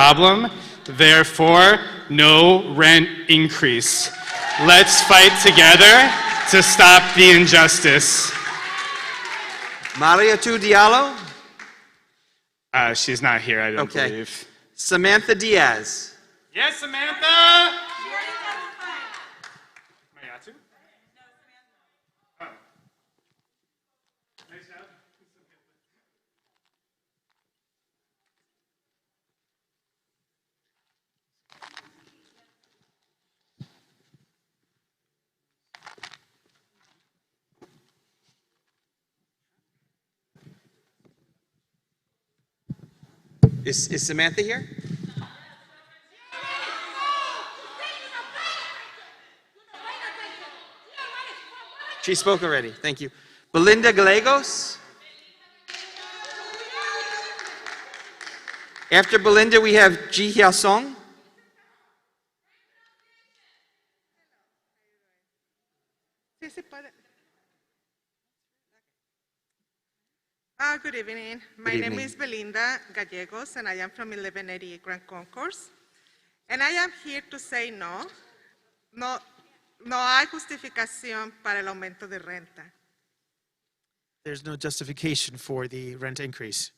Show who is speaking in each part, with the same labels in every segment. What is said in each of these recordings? Speaker 1: problem, therefore, no rent increase. Let's fight together to stop the injustice.
Speaker 2: Maria Tu Diallo,
Speaker 1: Uh, she's not here, I don't
Speaker 2: Okay.
Speaker 1: believe.
Speaker 2: Samantha Diaz,
Speaker 1: Yes, Samantha! Mayatu? Oh. Nice job.
Speaker 2: is, is Samantha here? She spoke already, thank you. Belinda Gallegos? After Belinda, we have Ji Hyasong. Song.
Speaker 3: Sí, sí puede. Ah, good evening. My
Speaker 2: Good
Speaker 3: name
Speaker 2: evening.
Speaker 3: is Belinda Gallegos, and I am from 1180 Grand Concourse. And I am here to say no. No, no hay justificación para el aumento de renta.
Speaker 4: There's no justification for the rent increase.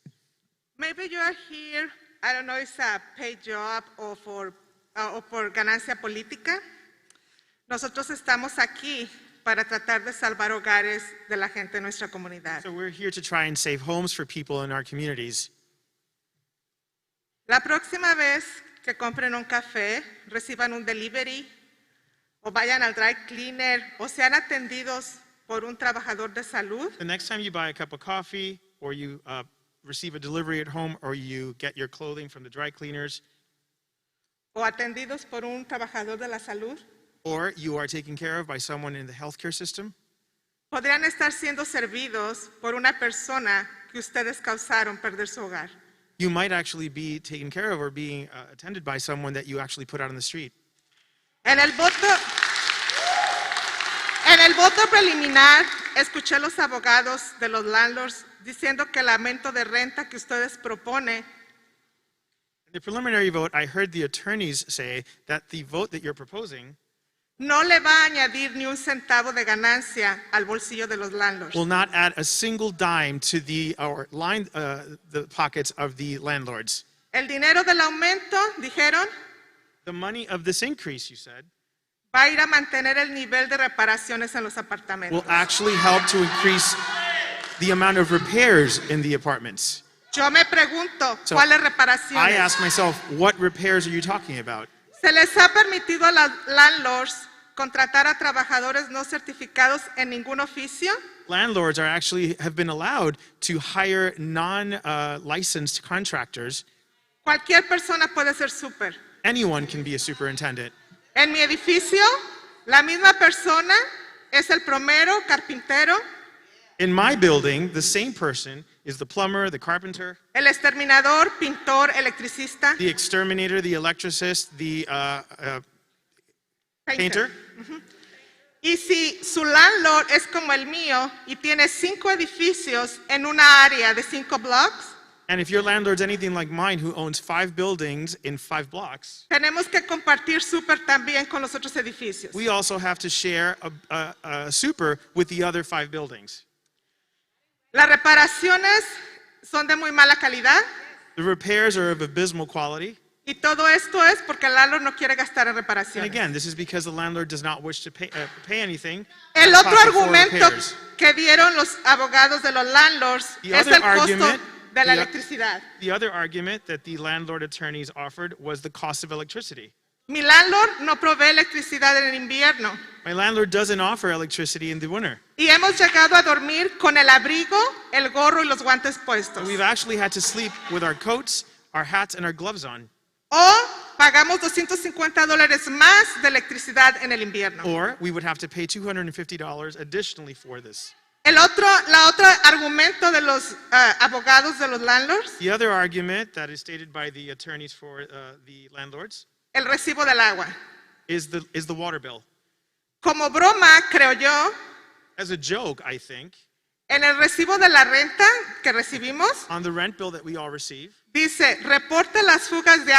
Speaker 3: Maybe you are here, I don't know, it's a paid job o por, ah, o por ganancia política. Nosotros estamos aquí para tratar de salvar hogares de la gente de nuestra comunidad.
Speaker 4: So we're here to try and save homes for people in our communities.
Speaker 3: La próxima vez que compren un café, reciban un delivery o vayan al dry cleaner o sean atendidos por un trabajador de salud,
Speaker 4: The next time you buy a cup of coffee, or you uh, receive a delivery at home, or you get your clothing from the dry cleaners,
Speaker 3: o atendidos por un trabajador de la salud,
Speaker 4: or you are taken care of by someone in the healthcare system,
Speaker 3: podrían estar siendo servidos por una persona que ustedes causaron perder su hogar.
Speaker 4: you might actually be taken care of or being uh, attended by someone that you actually put out on the street.
Speaker 3: En el voto, en el voto preliminar, escuché a los abogados de los landlords diciendo que el aumento de renta que ustedes proponen
Speaker 4: In the preliminary vote, I heard the attorneys say that the vote that you're proposing
Speaker 3: no le va a añadir ni un centavo de ganancia al bolsillo de los landlords.
Speaker 4: will not add a single dime to the or line uh, the pockets of the landlords.
Speaker 3: El dinero del aumento, dijeron,
Speaker 4: The money of this increase, you said,
Speaker 3: va a ir a mantener el nivel de reparaciones en los
Speaker 4: will
Speaker 3: apartamentos.
Speaker 4: actually help to increase the amount of repairs in the apartments.
Speaker 3: Yo me pregunto,
Speaker 4: So,
Speaker 3: ¿cuáles
Speaker 4: I
Speaker 3: reparaciones?
Speaker 4: ask myself, what repairs are you talking about?
Speaker 3: Se les ha permitido a los landlords contratar a trabajadores no certificados en ningún oficio.
Speaker 4: Landlords are actually have been allowed to hire non-licensed contractors.
Speaker 3: Cualquier persona puede ser súper.
Speaker 4: Anyone can be a superintendent.
Speaker 3: En mi edificio, la misma persona es el plomero, carpintero,
Speaker 4: In my building, the same person is the plumber, the carpenter,
Speaker 3: el exterminador, pintor, electricista.
Speaker 4: the exterminator, the electricist, the uh, uh,
Speaker 3: Painter.
Speaker 4: painter.
Speaker 3: Y si su landlord es como el mío y tiene cinco edificios en una área de cinco blocks,
Speaker 4: And if your landlord's anything like mine, who owns five buildings in five blocks,
Speaker 3: tenemos que compartir súper también con los otros edificios.
Speaker 4: we also have to share a, a, a super with the other five buildings.
Speaker 3: Las reparaciones son de muy mala calidad
Speaker 4: The repairs are of abysmal quality.
Speaker 3: y todo esto es porque el landlord no quiere gastar en
Speaker 4: And
Speaker 3: reparaciones.
Speaker 4: again, this is because the landlord does not wish to pay, uh, pay anything.
Speaker 3: El
Speaker 4: Pocket
Speaker 3: otro
Speaker 4: full of
Speaker 3: argumento
Speaker 4: repairs.
Speaker 3: que dieron los abogados de los landlords
Speaker 4: The
Speaker 3: es
Speaker 4: other
Speaker 3: el costo
Speaker 4: argument-
Speaker 3: de la
Speaker 4: the-
Speaker 3: electricidad.
Speaker 4: The other argument that the landlord attorneys offered was the cost of electricity.
Speaker 3: Mi landlord no provee electricidad en el invierno.
Speaker 4: My landlord doesn't offer electricity in the winter.
Speaker 3: Y hemos llegado a dormir con el abrigo, el gorro y los guantes puestos.
Speaker 4: We've actually had to sleep with our coats, our hats, and our gloves on.
Speaker 3: O pagamos 250 dólares más de electricidad en el invierno.
Speaker 4: Or we would have to pay $250 additionally for this.
Speaker 3: El otro, la otra argumento de los ah, abogados de los landlords,
Speaker 4: The other argument that is stated by the attorneys for uh, the landlords
Speaker 3: el recibo del agua.
Speaker 4: is the, is the water bill.
Speaker 3: Como broma, creo yo,
Speaker 4: As a joke, I think,
Speaker 3: en el recibo de la renta que recibimos,
Speaker 4: on the rent bill that we all receive,
Speaker 3: dice, reporte las fugas de agua